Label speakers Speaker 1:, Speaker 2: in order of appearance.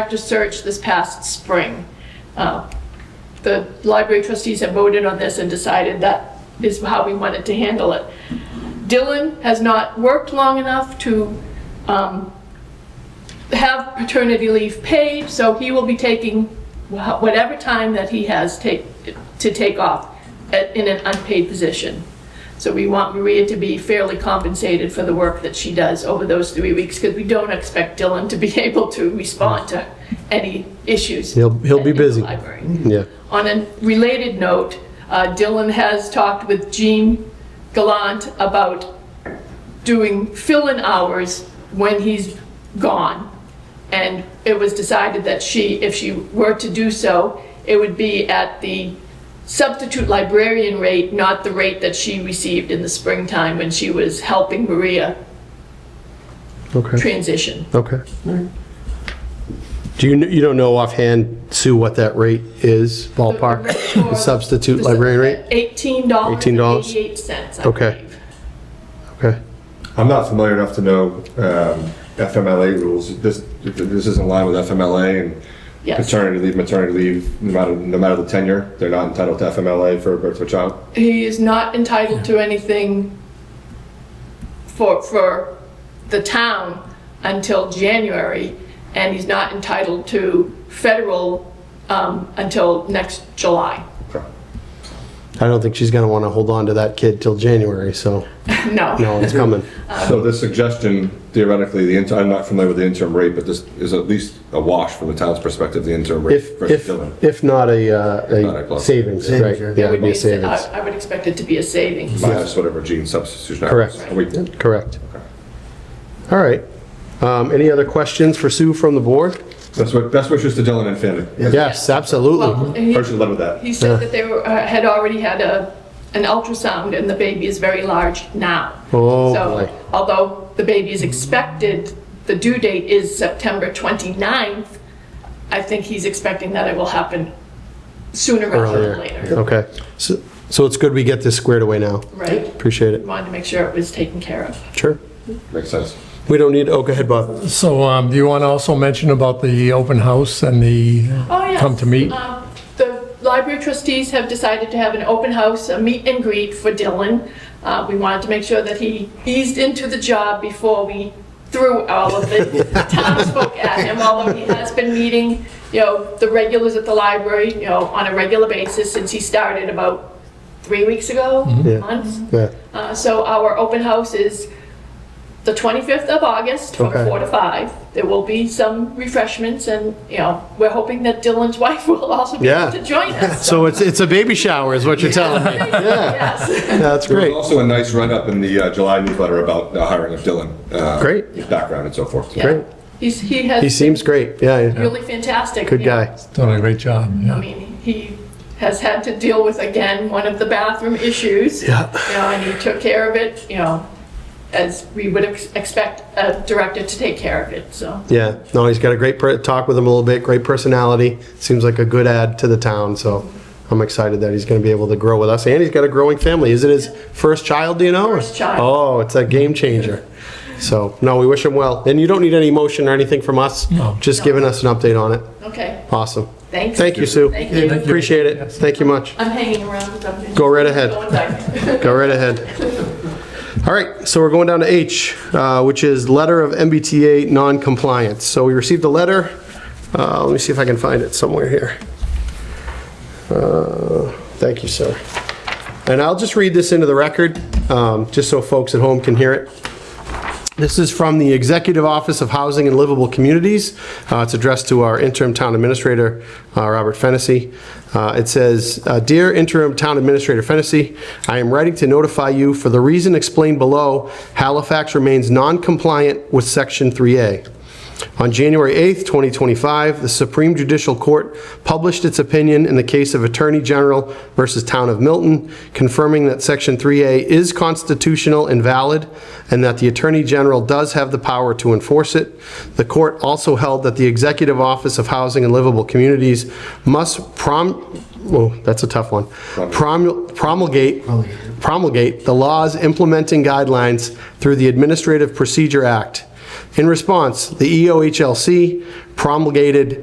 Speaker 1: After search this past spring. Uh, The library trustees have voted on this and decided that is how we wanted to handle it. Dylan has not worked long enough to um, have paternity leave paid, so he will be taking wha- whatever time that he has take, to take off at- in an unpaid position. So we want Maria to be fairly compensated for the work that she does over those three weeks, because we don't expect Dylan to be able to respond to any issues.
Speaker 2: He'll- he'll be
Speaker 1: in the
Speaker 2: busy.
Speaker 1: library.
Speaker 2: Yeah.
Speaker 1: On a related note, uh, Dylan has talked with Jean Gallant about doing fill-in hours when he's gone. And it was decided that she, if she were to do so, it would be at the substitute librarian rate, not the rate that she received in the springtime when she was helping Maria
Speaker 2: Okay.
Speaker 1: transition.
Speaker 2: Okay. Do you, kn- you don't know offhand, Sue, what that rate is ballpark?
Speaker 1: The rate for-
Speaker 2: The Substitute librarian rate?
Speaker 1: Eighteen dollars
Speaker 2: $18?
Speaker 1: eighty-eight cents, I
Speaker 2: Okay.
Speaker 1: believe.
Speaker 2: Okay.
Speaker 3: I'm not familiar enough to know um, FMLA rules. This, this is in line with FMLA and
Speaker 1: Yes.
Speaker 3: paternity leave, maternity leave, no matter, no matter the tenure, they're not entitled to FMLA for birth of a child.
Speaker 1: He is not entitled to anything for, for the town until January, and he's not entitled to federal um, until next July.
Speaker 2: I don't think she's gonna wanna hold on to that kid till January, so,
Speaker 1: No.
Speaker 2: no, it's coming.
Speaker 3: So this suggestion, theoretically, the, inter- I'm not familiar with the interim rate, but this is at least a wash from the town's perspective, the interim rate.
Speaker 2: If, if,
Speaker 3: versus Dylan.
Speaker 2: if not a,
Speaker 3: Not
Speaker 2: uh,
Speaker 3: a
Speaker 2: a
Speaker 3: club.
Speaker 2: savings, right?
Speaker 4: Savings,
Speaker 2: Yeah,
Speaker 1: It
Speaker 2: it'd be a
Speaker 1: sa-
Speaker 2: savings.
Speaker 1: uh, I I would expect it to be a savings.
Speaker 3: Minus whatever gene substitution.
Speaker 2: Correct.
Speaker 3: happens. Are we-
Speaker 2: Correct. All right. Um, any other questions for Sue from the board?
Speaker 3: Best wi- best wishes to Dylan and family.
Speaker 2: Yes, absolutely.
Speaker 1: Well, he-
Speaker 3: Personally led with that.
Speaker 1: He said that they were, uh, had already had a, an ultrasound and the baby is very large now.
Speaker 2: Oh, boy.
Speaker 1: So although the baby is expected, the due date is September 29th, I think he's expecting that it will happen sooner rather
Speaker 2: Earlier.
Speaker 1: than later.
Speaker 2: Okay. So, so it's good we get this squared away now.
Speaker 1: Right?
Speaker 2: Appreciate it.
Speaker 1: Wanted to make sure it was taken care of.
Speaker 2: Sure.
Speaker 3: Makes sense.
Speaker 2: We don't need, oh, go ahead, Bob.
Speaker 4: So um, do you want to also mention about the open house and the
Speaker 1: Oh, yes.
Speaker 4: come to meet?
Speaker 1: Um, The library trustees have decided to have an open house, a meet and greet for Dylan. Uh, We wanted to make sure that he eased into the job before we threw all of the townsfolk at him, although he has been meeting, you know, the regulars at the library, you know, on a regular basis since he started about three weeks ago,
Speaker 2: Yeah.
Speaker 1: months.
Speaker 2: Yeah.
Speaker 1: Uh, So our open house is the 25th of August from
Speaker 2: Okay.
Speaker 1: 4 to 5. There will be some refreshments and, you know, we're hoping that Dylan's wife will also be
Speaker 2: Yeah.
Speaker 1: able to join us.
Speaker 2: So it's, it's a baby shower is what you're telling me.
Speaker 1: Yes.
Speaker 2: That's
Speaker 3: There was
Speaker 2: great.
Speaker 3: also a nice write-up in the uh, July newsletter about the hiring of Dylan. uh,
Speaker 2: Great.
Speaker 3: His background and so forth.
Speaker 1: Yeah.
Speaker 2: Great.
Speaker 1: He's, he
Speaker 2: He
Speaker 1: has
Speaker 2: seems great. Yeah,
Speaker 1: been
Speaker 2: Yeah.
Speaker 1: really fantastic.
Speaker 2: Good
Speaker 1: you know.
Speaker 2: guy.
Speaker 4: Done a great job,
Speaker 1: I
Speaker 4: yeah.
Speaker 1: mean, he has had to deal with, again, one of the bathroom issues.
Speaker 2: Yeah.
Speaker 1: You know, and he took care of it, you know, as we would ex- expect a director to take care of it, so.
Speaker 2: Yeah. No, he's got a great per- talk with him a little bit. Great personality. Seems like a good add to the town. So I'm excited that he's going to be able to grow with us. And he's got a growing family. Is it his first child? Do you know?
Speaker 1: First child.
Speaker 2: Oh, it's a game changer. So no, we wish him well. And you don't need any motion or anything from us.
Speaker 4: No.
Speaker 2: Just giving us an update on it.
Speaker 1: Okay,
Speaker 2: Awesome.
Speaker 1: thanks.
Speaker 2: Thank you, Sue.
Speaker 1: Thank you. Thank you.
Speaker 2: Appreciate it. Thank you much.
Speaker 1: I'm hanging around. with them.
Speaker 2: Go right ahead.
Speaker 1: Going back.
Speaker 2: Go right ahead. All right, so we're going down to H, uh, which is letter of MBTA non-compliance. So we received a letter. Uh, Let me see if I can find it somewhere here. Uh, Thank you, sir. And I'll just read this into the record, um, just so folks at home can hear it. This is from the Executive Office of Housing and Livable Communities. Uh, It's addressed to our interim town administrator, uh, Robert Fennessy. Uh, It says, uh, "Dear interim town administrator Fennessy, I am writing to notify you for the reason explained below, Halifax remains non-compliant with Section 3A. On January 8th, 2025, the Supreme Judicial Court published its opinion in the case of Attorney General versus Town of Milton, confirming that Section 3A is constitutional and valid, and that the Attorney General does have the power to enforce it. The court also held that the Executive Office of Housing and Livable Communities must prom, oh, that's a tough one, Promul- promulgate, promulgate the E laws implementing guidelines through the Administrative Procedure Act. In response, the EOHLC promulgated